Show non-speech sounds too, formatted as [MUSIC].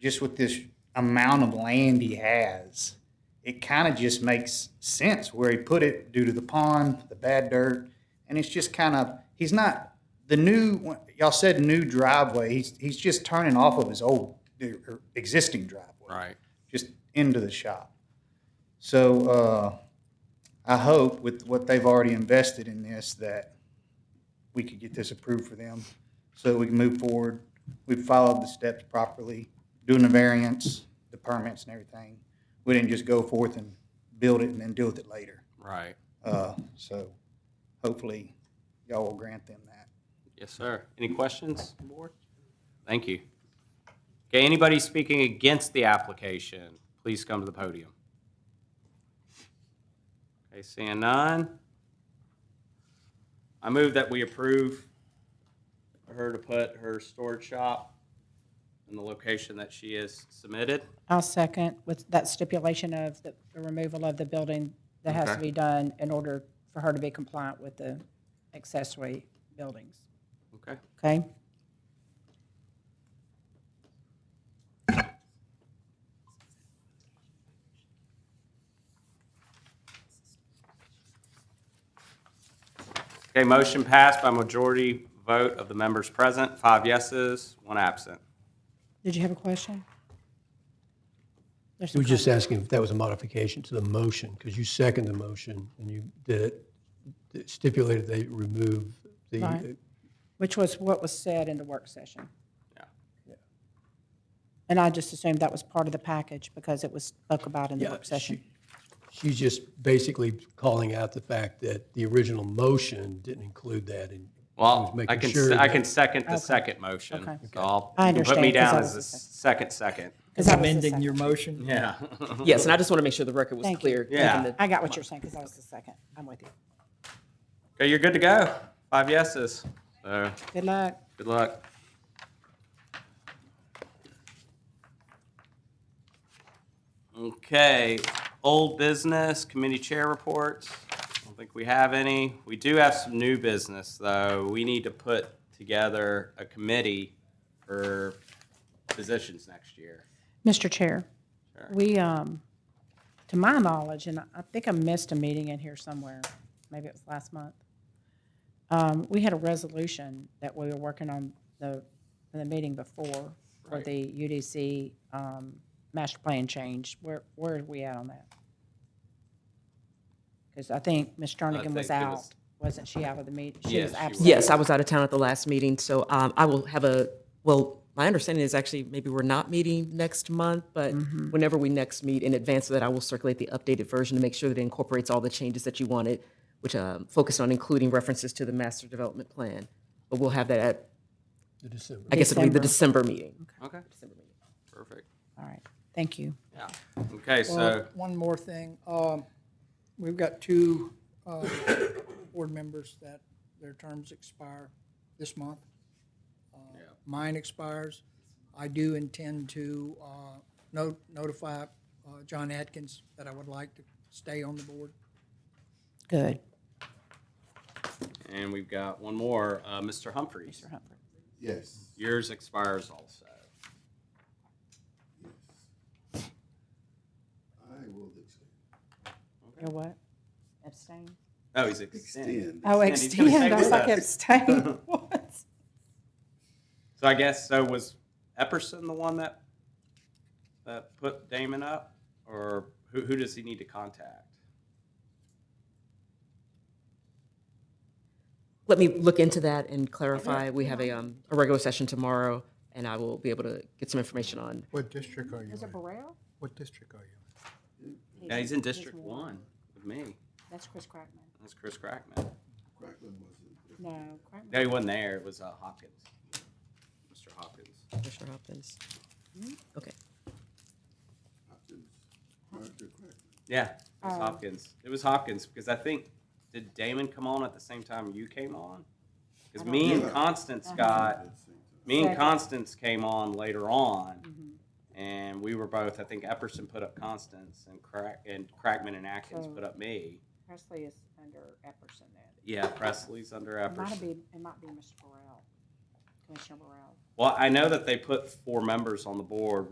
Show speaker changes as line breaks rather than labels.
just with this amount of land he has, it kind of just makes sense where he put it due to the pond, the bad dirt, and it's just kind of he's not the new y'all said new driveway. He's he's just turning off of his old er, existing driveway,
Right.
just into the shop. So uh, I hope with what they've already invested in this that we could get this approved for them so that we can move forward. We've followed the steps properly, doing the variance, the permits and everything. We didn't just go forth and build it and then deal with it later.
Right.
Uh, So hopefully y'all will grant them that.
Yes, sir. Any questions, board? Thank you. Okay, anybody speaking against the application, please come to the podium. Okay, seeing none. I move that we approve her to put her storage shop in the location that she has submitted.
I'll second with that stipulation of the the removal of the building that has to
Okay.
be done in order for her to be compliant with the accessory buildings,
Okay,
okay?
Okay, motion passed by majority vote of the members present, five yeses, one absent.
Did you have a question? There's some
We were just
comment.
asking if that was a modification to the motion, because you second the motion, and you did it it stipulated they remove the,
Right. Which was what was said in the work session.
Yeah.
And I just assumed that was part of the package because it was spoke about in the
yeah,
work session.
she- she's just basically calling out the fact that the original motion didn't include that, and
Well,
making
I can,
sure
se- I
that-
can second the
Okay.
second motion.
Okay.
So I'll,
I
you can put
understand,
me
'cause
down
I
as the
was the
second, second.
'Cause that was the
amending
second.
your motion?
Yeah.
Yes, and I just want to make sure the record was
Thank you.
clear. given
Yeah.
the-
I got what you're saying because that was the second. I'm with you.
[LAUGHS] Okay, you're good to go. Five yeses. So,
Good luck.
good luck. Okay, old business, committee chair reports. I don't think we have any. We do have some new business, though. We need to put together a committee for positions next year.
Mr. Chair,
Sure.
we, um, to my knowledge, and I think I missed a meeting in here somewhere, maybe it was last month, um, we had a resolution that we were working on the, in the meeting before for
Right.
the UDC um, master plan change. Where, where are we at on that? Because I think Ms. Jernigan was
think it
out.
was-
Wasn't she out of the meeting? She
Yes,
was
she
absent.
Yes, I was out of town at the last meeting, so um, I will have a, well, my understanding is actually maybe we're not meeting next month, but whenever we next meet in advance of that, I will circulate the updated version to make sure that it incorporates all the changes that you wanted, which um, focused on including references to the master development plan. But we'll have that at,
the December.
I guess it'll be the December meeting.
Okay. Perfect.
All right, thank you.
Yeah. Okay, so,
Well, One more thing. Um, We've got two uh, board members that their terms expire this month. Uh, Mine expires. I do intend to uh, no- notify uh, John Atkins that I would like to stay on the board.
Good.
and we've got one more, uh, Mr. Humphreys.
Mr. Humphrey.
Yes.
Yours expires also.
I will extend.
You're what? Abstain?
Oh, he's extended.
Extend.
Oh,
Extend. He's gonna
extend,
stay
I was
with
like,
us.
abstain,
[LAUGHS]
what?
So I guess, so was Epperson the one that, that put Damon up? Or who, who does he need to contact?
Let me look into that and clarify. We have a, um, a regular session tomorrow, and I will be able to get some information on
What district are you
Is it
in?
Burrell?
What district are you
Yeah, he's in District One with me.
That's Chris Crackman.
That's Chris Crackman.
Franklin was
No, Crackman.
No, he wasn't there. It was uh, Hopkins. Mr. Hopkins.
Commissioner Hopkins. Okay.
Hopkins, Dr. Crackman.
Yeah, it was
Oh.
Hopkins. It was Hopkins because I think did Damon come on at the same time you came on? Because me and
know.
Constance
Uh-huh.
got me and
Second. Mm-hmm.
Constance came on later on, and we were both. I think Epperson put up Constance and Crack and Crackman and Atkins
So-
put up me.
Presley is under Epperson then.
Yeah, Presley's under
It might
Epperson.
be, it might be Mr. Burrell, Commissioner Burrell.
Well, I know that they put four members on the board